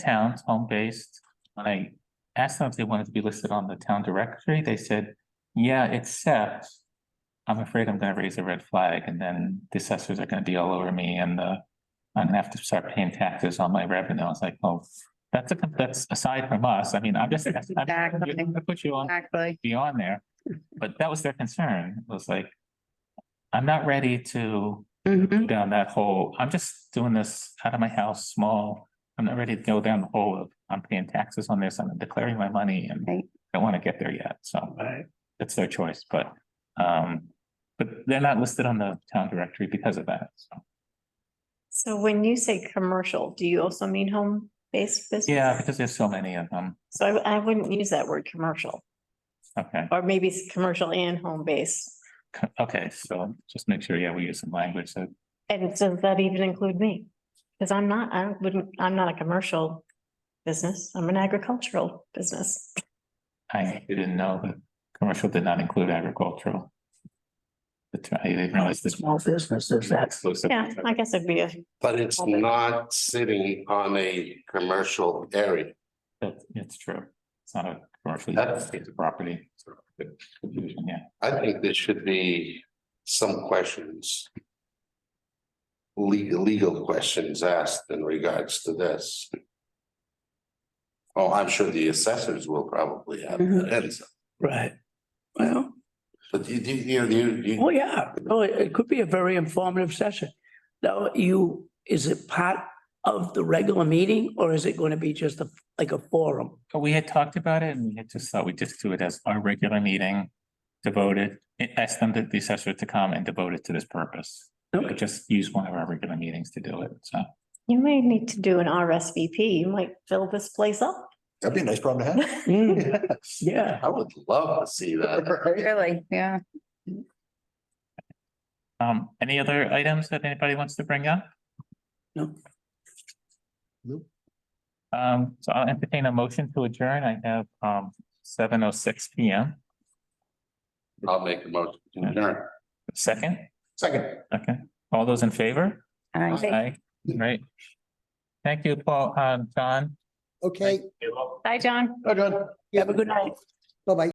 towns, home-based. When I asked them if they wanted to be listed on the town directory, they said, yeah, except. I'm afraid I'm gonna raise a red flag and then the assessors are gonna be all over me and the. I'm gonna have to start paying taxes on my revenue. I was like, oh, that's a, that's aside from us. I mean, I'm just, I'm- I put you on Exactly. beyond there. But that was their concern, was like, I'm not ready to Mhm. Mm-hmm. go down that hole. I'm just doing this out of my house, small. I'm not ready to go down the hole of, I'm paying taxes on this, I'm declaring my money and Right. I don't want to get there yet, so. It's their choice, but, um, but they're not listed on the town directory because of that, so. So when you say commercial, do you also mean home-based business? Yeah, because there's so many of them. So I, I wouldn't use that word commercial, Okay, or maybe it's commercial and home-based. c- okay, so just make sure, yeah, we use some language that, And does that even include me? Cause I'm not, I wouldn't, I'm not a commercial business. I'm an agricultural business. I didn't know that commercial did not include agricultural. The, ter- I didn't realize this. Small businesses, that's, exclusive. Yeah, I guess it'd be a, But it's not sitting on a commercial area. That's, it's true. It's not a commercially That's- designated property. Yeah, I think there should be some questions. Legal, legal questions asked in regards to this. Oh, I'm sure the assessors will probably have that answer, right. Well, but you, you, you know, you, you. oh yeah, no, it it could be a very informative session. Now, you, is it part of the regular meeting or is it going to be just a, like a forum? but we had talked about it and we had just thought we'd just do it as our regular meeting devoted, ask them to the assessor to come and devote it to this purpose. But Okay, just use one of our regular meetings to do it, so. you may need to do an RSVP. You might fill this place up. That'd be a nice problem to Mm-hmm. Mm, have. Yeah, I would love to see that. Really, yeah. Um, any other items that anybody wants to bring up? no, Um, so I'll entertain a motion to adjourn. I have, um, seven oh six P M. I'll make a motion. to adjourn. Second, Second. okay. All those in favor? I- Aye. Right. Thank you, Paul, um, John. Okay, Bye, John. Adjourn. have a good night. bye-bye.